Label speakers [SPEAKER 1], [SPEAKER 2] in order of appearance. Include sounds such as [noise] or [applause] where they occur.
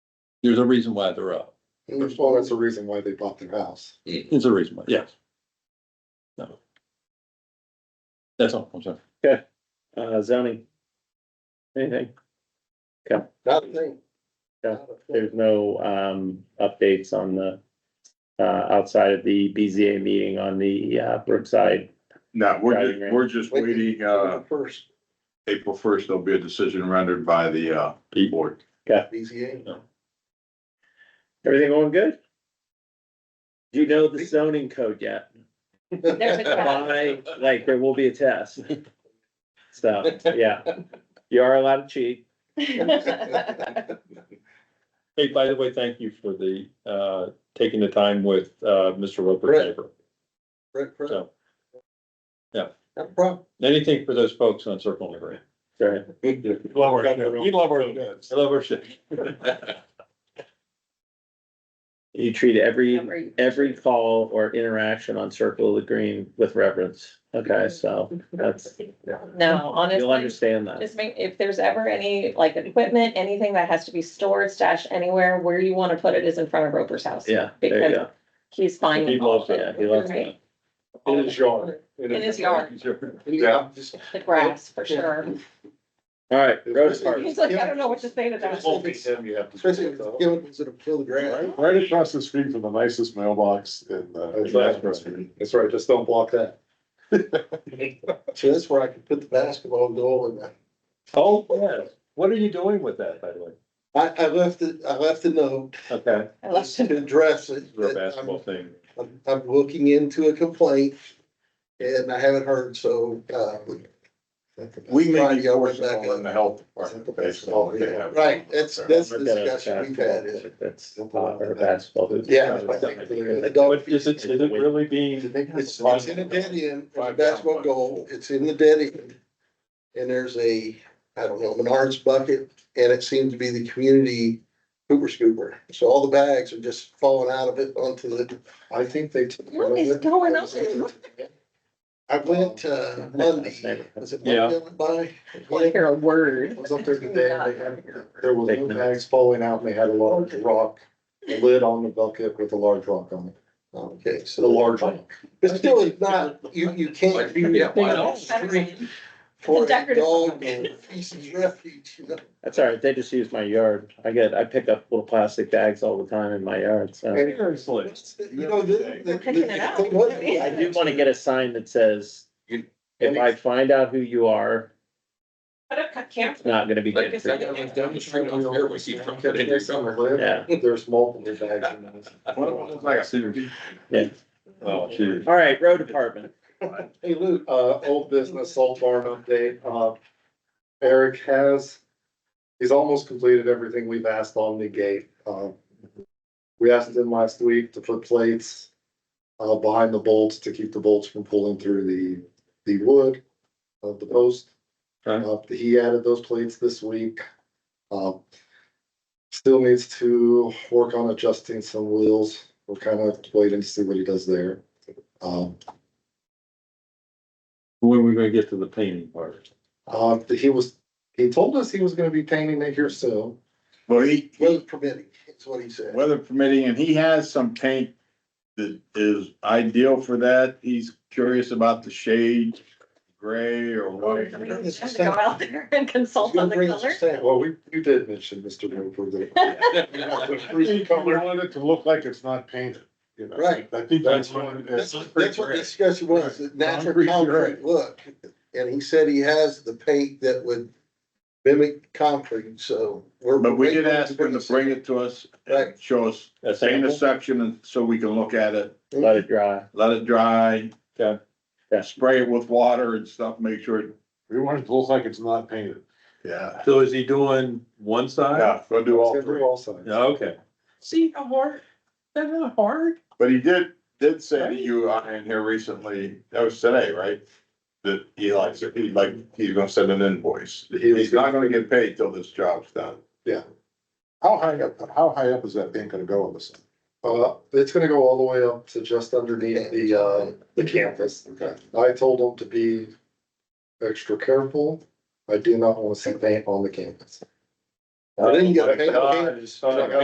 [SPEAKER 1] There's a reason why they're up.
[SPEAKER 2] Well, that's the reason why they bought their house.
[SPEAKER 1] It's a reason why, yes. No. That's all, I'm sorry.
[SPEAKER 3] uh, zoning. Anything,
[SPEAKER 2] Nothing.
[SPEAKER 3] Yeah, there's no, um, updates on the, uh, outside of the BZA meeting on the, uh, Brookside.
[SPEAKER 4] No, we're,
[SPEAKER 3] Driving range.
[SPEAKER 4] ju- we're just waiting, uh,
[SPEAKER 2] First,
[SPEAKER 4] April first, there'll be a decision rendered by the, uh, board.
[SPEAKER 2] BZA. [laughs]
[SPEAKER 3] Everything going good? Do you know the zoning code yet?
[SPEAKER 5] There's a crowd.
[SPEAKER 3] Why, like, there will be a test. So, yeah, you are allowed to cheat.
[SPEAKER 1] Hey, by the way, thank you for the, uh, taking the time with, uh, Mr. Roper
[SPEAKER 2] Right.
[SPEAKER 1] Tabor.
[SPEAKER 2] Right, right.
[SPEAKER 1] So. Yeah.
[SPEAKER 2] No problem.
[SPEAKER 1] Anything for those folks on Circle Liberty.
[SPEAKER 3] Sorry.
[SPEAKER 1] Love
[SPEAKER 2] our ship. We
[SPEAKER 1] love our. Love our ship.
[SPEAKER 3] You treat every,
[SPEAKER 5] Every-
[SPEAKER 3] every call or interaction on Circle of the Green with reverence. Okay, so that's,
[SPEAKER 5] No,
[SPEAKER 3] you'll
[SPEAKER 5] honestly,
[SPEAKER 3] understand that.
[SPEAKER 5] just make, if there's ever any, like, equipment, anything that has to be stored, stashed anywhere, where you wanna put it is in front of Roper's house.
[SPEAKER 3] Yeah, there you go.
[SPEAKER 5] He's fine.
[SPEAKER 1] He
[SPEAKER 5] with all
[SPEAKER 1] loves
[SPEAKER 5] of
[SPEAKER 1] it.
[SPEAKER 3] Yeah, he loves
[SPEAKER 5] Right.
[SPEAKER 3] it.
[SPEAKER 2] In his yard.
[SPEAKER 5] In his yard,
[SPEAKER 2] Yeah. just-
[SPEAKER 5] the grass, for sure.
[SPEAKER 3] All right, road park.
[SPEAKER 5] He's like, I don't know what to say to that.
[SPEAKER 2] Especially if it's given to the field grant.
[SPEAKER 6] Right across the street from the nicest mailbox in uh, the.
[SPEAKER 2] That's right, just don't block that. So that's where I could put the basketball goal in that.
[SPEAKER 1] Oh, yes. What are you doing with that, by the way?
[SPEAKER 2] I, I left it, I left a [laughs]
[SPEAKER 5] Oh.
[SPEAKER 2] note
[SPEAKER 1] Okay.
[SPEAKER 5] I left
[SPEAKER 2] to
[SPEAKER 7] [laughs]
[SPEAKER 5] him.
[SPEAKER 2] address it.
[SPEAKER 1] Your
[SPEAKER 2] that um, I'm-
[SPEAKER 1] basketball thing.
[SPEAKER 2] I'm, I'm looking into a complaint and I haven't heard, so, uh.
[SPEAKER 4] We may
[SPEAKER 2] Friday,
[SPEAKER 4] be
[SPEAKER 2] I went
[SPEAKER 4] forced
[SPEAKER 2] back
[SPEAKER 4] on in the
[SPEAKER 2] up.
[SPEAKER 4] health department based on what they have.
[SPEAKER 2] Right, that's, that's the
[SPEAKER 3] We've got a
[SPEAKER 2] discussion we've
[SPEAKER 3] basketball
[SPEAKER 2] had is.
[SPEAKER 3] court That's, uh, or a basketball. hoop.
[SPEAKER 2] Yeah.
[SPEAKER 1] But is it, is it really being,
[SPEAKER 2] It's, it's in a dead end, it's a basketball goal, it's in the dead end. And there's a, I don't know, Menards bucket, and it seems to be the community hooper scooper. So all the bags are just falling out of it onto the. I think they.
[SPEAKER 5] What is going [laughs] on?
[SPEAKER 2] I went, uh, Monday, was it Monday? I went by?
[SPEAKER 5] Like, you're a word.
[SPEAKER 2] was up there today, and they had, there was
[SPEAKER 3] Take
[SPEAKER 2] no
[SPEAKER 3] notes.
[SPEAKER 2] bags falling out, and they had a large rock, a lid on the bucket with a large rock on it. Okay, so. The large one. But still, it's not, you, you can't do that
[SPEAKER 1] They
[SPEAKER 2] on
[SPEAKER 1] know.
[SPEAKER 2] the street for
[SPEAKER 5] It's a
[SPEAKER 2] a
[SPEAKER 5] decorative
[SPEAKER 2] dog
[SPEAKER 5] ornament.
[SPEAKER 2] and feces refuge, you know?
[SPEAKER 3] That's all right. They just use my yard. I get, I pick up little plastic bags all the time in my yard, so.
[SPEAKER 1] seriously?
[SPEAKER 2] You know, the.
[SPEAKER 5] They're picking it up.
[SPEAKER 3] I do wanna get a sign that says, if I find out who you are,
[SPEAKER 5] Put up camera.
[SPEAKER 3] it's not gonna be
[SPEAKER 7] Like I
[SPEAKER 3] good for
[SPEAKER 7] said,
[SPEAKER 3] you.
[SPEAKER 7] I'm like demonstrating over here, we see from that in summer.
[SPEAKER 3] Yeah.
[SPEAKER 2] There's multiple bags in this.
[SPEAKER 3] Yeah.
[SPEAKER 1] Oh, geez.
[SPEAKER 3] All right, road department.
[SPEAKER 2] Hey Lou, uh, old business salt barn update, uh, Eric has, he's almost completed everything we've asked on the gate, um. We asked him last week to put plates, uh, behind the bolts to keep the bolts from pulling through the, the wood of the post.
[SPEAKER 1] Okay.
[SPEAKER 2] Uh, he added those plates this week, um. Still needs to work on adjusting some wheels, we're kind of waiting to see what he does there, um.
[SPEAKER 1] When are we gonna get to the painting part?
[SPEAKER 2] Uh, he was, he told us he was gonna be painting it here soon.
[SPEAKER 4] Well, he, he-
[SPEAKER 2] permitting, that's what he said.
[SPEAKER 4] weather permitting, and he has some paint that is ideal for that. He's curious about the shade, gray
[SPEAKER 6] [laughs]
[SPEAKER 4] or white.
[SPEAKER 5] We have to Go out there and consult on the color.
[SPEAKER 2] Well, we, you did mention Mr. Roper
[SPEAKER 5] [laughs]
[SPEAKER 6] You want it to look like it's not painted, you know?
[SPEAKER 2] Right.
[SPEAKER 6] I think that's what it
[SPEAKER 2] That's
[SPEAKER 6] is.
[SPEAKER 2] that's what the discussion was, the natural
[SPEAKER 6] Concrete
[SPEAKER 2] concrete
[SPEAKER 6] gray.
[SPEAKER 2] look, and he said he has the paint that would mimic concrete, so. we're-
[SPEAKER 4] But we did ask him to bring it to us, and
[SPEAKER 2] Right.
[SPEAKER 4] show us,
[SPEAKER 1] A
[SPEAKER 4] paint a
[SPEAKER 1] sample?
[SPEAKER 4] section and so we can look at it.
[SPEAKER 3] Let it dry.
[SPEAKER 4] let it dry.
[SPEAKER 1] Okay.
[SPEAKER 3] Yeah.
[SPEAKER 4] Spray it with water and stuff, make sure, it
[SPEAKER 6] We want it to look like it's not painted.
[SPEAKER 4] yeah.
[SPEAKER 1] So is he doing one side?
[SPEAKER 4] Yeah, go do
[SPEAKER 2] It's
[SPEAKER 4] all
[SPEAKER 2] gonna do
[SPEAKER 4] three.
[SPEAKER 2] all sides.
[SPEAKER 1] Yeah, okay. See how hard, that's not hard.
[SPEAKER 4] But he did, did say to you uh, in here recently, that was today, right? That he likes it, he like, he's gonna send an invoice.
[SPEAKER 2] He was-
[SPEAKER 4] He's not gonna get paid till this job's done.
[SPEAKER 6] How high up, how high up is that paint gonna go on the sun?
[SPEAKER 2] Uh, it's gonna go all the way up to just underneath the, uh, the campus.
[SPEAKER 6] Okay.
[SPEAKER 2] I told them to be extra careful. I do not wanna see paint on the campus. I didn't get a paint.
[SPEAKER 1] God, it's not-